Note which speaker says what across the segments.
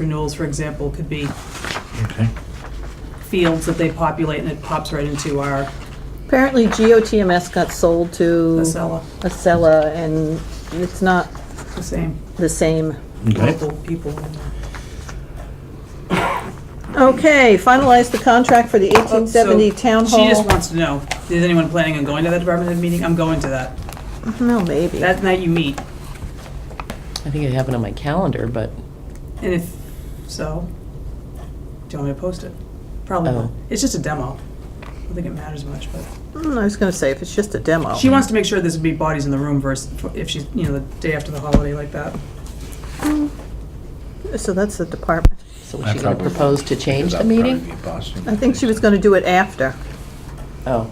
Speaker 1: renewals, for example, could be
Speaker 2: Okay.
Speaker 1: fields that they populate and it pops right into our
Speaker 3: Apparently GOTMS got sold to
Speaker 1: Acela,
Speaker 3: Acela, and it's not
Speaker 1: the same
Speaker 3: the same.
Speaker 2: Okay.
Speaker 1: local people. in there.
Speaker 3: Okay, finalize the contract for the 1870
Speaker 1: Oh, So,
Speaker 3: Town
Speaker 1: She just
Speaker 3: Hall.
Speaker 1: wants to know, is anyone planning on going to that department head meeting? I'm going to that.
Speaker 3: No, maybe.
Speaker 1: That night you meet,
Speaker 4: I think it happened on my calendar, but,
Speaker 1: and if so, do you want me to post it? Probably
Speaker 4: Oh.
Speaker 1: not. It's just a demo. I don't think it matters much, but.
Speaker 3: Mm, I was gonna say, if it's just a demo.
Speaker 1: She wants to make sure there's gonna be bodies in the room versus if she's, you know, the day after the holiday like that.
Speaker 3: So that's the department.
Speaker 4: so was
Speaker 2: I
Speaker 4: she going to
Speaker 2: probably-
Speaker 4: propose to change the
Speaker 5: That'd probably
Speaker 4: meeting?
Speaker 5: be Boston.
Speaker 3: I think she was gonna do it after.
Speaker 4: Oh,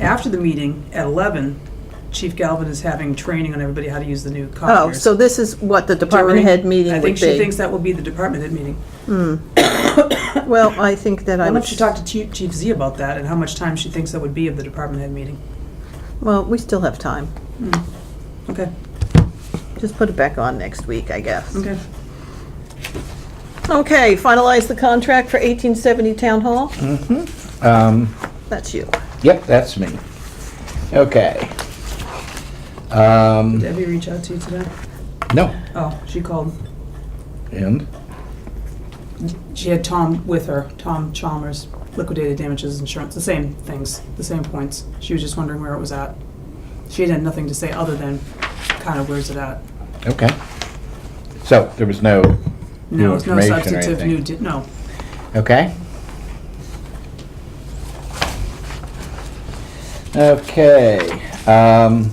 Speaker 1: After the meeting, at eleven, Chief Galvin is having training on everybody how to use the new
Speaker 3: Oh,
Speaker 1: copiers.
Speaker 3: so this is what the department
Speaker 1: During-
Speaker 3: head meeting
Speaker 1: I
Speaker 3: would be.
Speaker 1: think she thinks that will be the department head meeting.
Speaker 3: Well, I think that I
Speaker 1: Why
Speaker 3: would.
Speaker 1: don't you talk to Chief, Chief Z about that and how much time she thinks that would be of the department head meeting?
Speaker 3: Well, we still have time.
Speaker 1: Okay,
Speaker 3: Just put it back on next week, I guess.
Speaker 1: okay.
Speaker 3: Okay, finalize the contract for 1870 Town Hall?
Speaker 1: Mm.
Speaker 3: Mm-hmm. That's you.
Speaker 5: Um, Yep, that's me. Okay. Um,
Speaker 1: Did Debbie reach out to you today?
Speaker 5: no,
Speaker 1: Oh, she called.
Speaker 5: and,
Speaker 1: She had Tom with her, Tom Chalmers, liquidated damages insurance, the same things, the same points. She was just wondering where it was at. She had nothing to say other than kind of where's it at?
Speaker 5: okay. So, there was no new
Speaker 1: No, it's no
Speaker 5: information or
Speaker 1: substantive new,
Speaker 5: anything?
Speaker 1: di- no.
Speaker 5: Okay. Okay, um.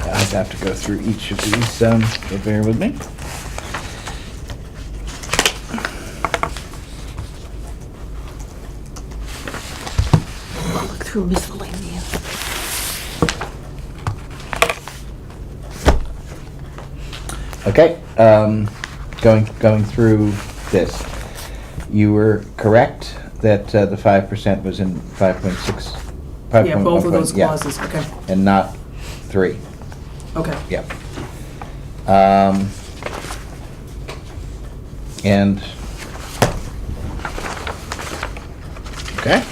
Speaker 5: I have to go through each of these, um, so bear with me.
Speaker 3: Look through miscellaneous.
Speaker 5: Okay, um, going, going through this, you were correct that uh, the five percent was in five point six, five
Speaker 1: Yeah,
Speaker 5: point
Speaker 1: both
Speaker 5: one
Speaker 1: of those
Speaker 5: point, yeah,
Speaker 1: clauses, okay,
Speaker 5: and not three,
Speaker 1: okay.
Speaker 5: yeah. Um, and, okay.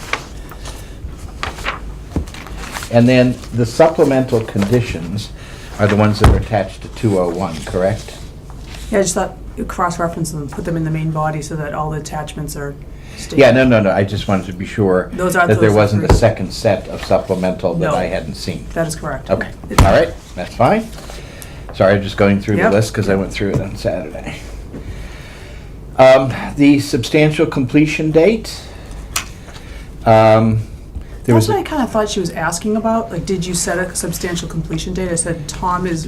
Speaker 5: And then the supplemental conditions are the ones that are attached to two oh one, correct?
Speaker 1: Yeah, I just thought, you cross-reference them, put them in the main body so that all the attachments are stated.
Speaker 5: Yeah, no, no, no, I just wanted to be sure
Speaker 1: Those are-
Speaker 5: that there
Speaker 1: those are
Speaker 5: wasn't a
Speaker 1: three.
Speaker 5: second set of supplemental that
Speaker 1: No.
Speaker 5: I hadn't seen.
Speaker 1: That is correct.
Speaker 5: Okay,
Speaker 1: It-
Speaker 5: all right, that's fine. Sorry, I'm just going through the
Speaker 1: Yep.
Speaker 5: list because I went through it on Saturday. Um, The substantial completion date. um, There
Speaker 1: That's
Speaker 5: was,
Speaker 1: what I
Speaker 5: a-
Speaker 1: kind of thought she was asking about, like, did you set a substantial completion date? I said, Tom is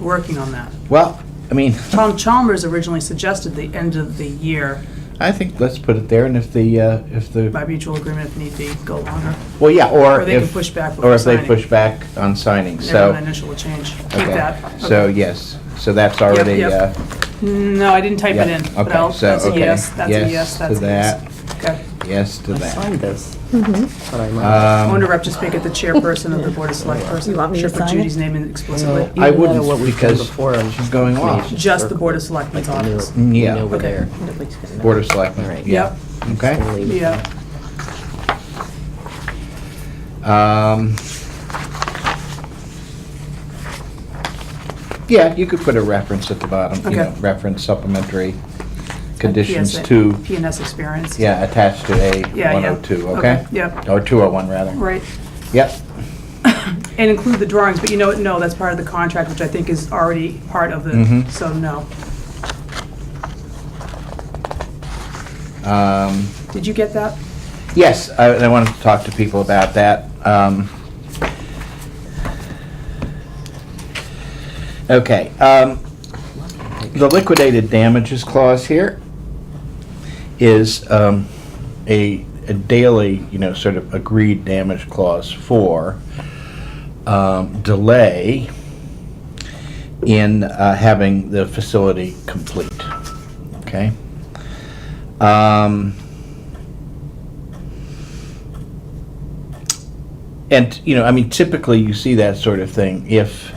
Speaker 1: working on that.
Speaker 5: well, I mean,
Speaker 1: Tom Chalmers originally suggested the end of the year
Speaker 5: I think let's put it there and if the, uh, if the,
Speaker 1: by mutual agreement if need be, go longer.
Speaker 5: well, yeah, or
Speaker 1: Or they can
Speaker 5: if,
Speaker 1: push back
Speaker 5: or
Speaker 1: before
Speaker 5: if they
Speaker 1: signing.
Speaker 5: push back on signing,
Speaker 1: Never an
Speaker 5: so.
Speaker 1: initial change. Keep
Speaker 5: okay.
Speaker 1: that.
Speaker 5: So,
Speaker 1: Okay.
Speaker 5: yes, so that's already,
Speaker 1: yep.
Speaker 5: uh,
Speaker 1: No, I didn't type it
Speaker 5: Yeah,
Speaker 1: in, but
Speaker 5: okay,
Speaker 1: I'll,
Speaker 5: so,
Speaker 1: that's a
Speaker 5: okay.
Speaker 1: yes, that's a
Speaker 5: Yes
Speaker 1: yes,
Speaker 5: to
Speaker 1: that's a yes. Okay.
Speaker 5: yes to
Speaker 4: I
Speaker 5: that.
Speaker 4: signed this.
Speaker 3: Mm-hmm.
Speaker 4: That's what I remember.
Speaker 5: Um,
Speaker 1: I wonder if just make it the chairperson of the Board of Select person.
Speaker 3: You want me to
Speaker 1: Should put
Speaker 3: sign it?
Speaker 1: Judy's name in explicitly.
Speaker 4: Even
Speaker 5: I
Speaker 4: though
Speaker 5: wouldn't,
Speaker 4: what we've done
Speaker 5: because
Speaker 4: before on
Speaker 5: she's going off.
Speaker 4: information
Speaker 1: Just the Board of
Speaker 4: circle,
Speaker 1: Selectmen's
Speaker 4: like, we knew-
Speaker 1: office.
Speaker 4: we
Speaker 5: Yeah.
Speaker 4: knew over
Speaker 1: Okay.
Speaker 4: there.
Speaker 3: Nobody's gonna know.
Speaker 5: Board of Selectmen.
Speaker 4: All right.
Speaker 5: yeah. Okay.
Speaker 4: We'll leave it.
Speaker 1: Yeah,
Speaker 5: Um, Yeah, you could put a reference at the bottom, you
Speaker 1: Okay.
Speaker 5: know, reference supplementary conditions
Speaker 1: PSA
Speaker 5: to,
Speaker 1: PNS experience.
Speaker 5: yeah, attached to A
Speaker 1: Yeah, yeah.
Speaker 5: 102, okay?
Speaker 1: Yep,
Speaker 5: Or 201, rather.
Speaker 1: right.
Speaker 5: Yep,
Speaker 1: And include the drawings, but you know, what? no, that's part of the contract, which I think is already part of the,
Speaker 5: Mhm.
Speaker 1: so no.
Speaker 5: um,
Speaker 1: Did you get that?
Speaker 5: yes, I I wanted to talk to people about that. um, Okay, um, the liquidated damages clause here is um, a a daily, you know, sort of agreed damage clause for um, delay in uh, having the facility complete, okay? Um, And, you know, I mean, typically you see that sort of thing if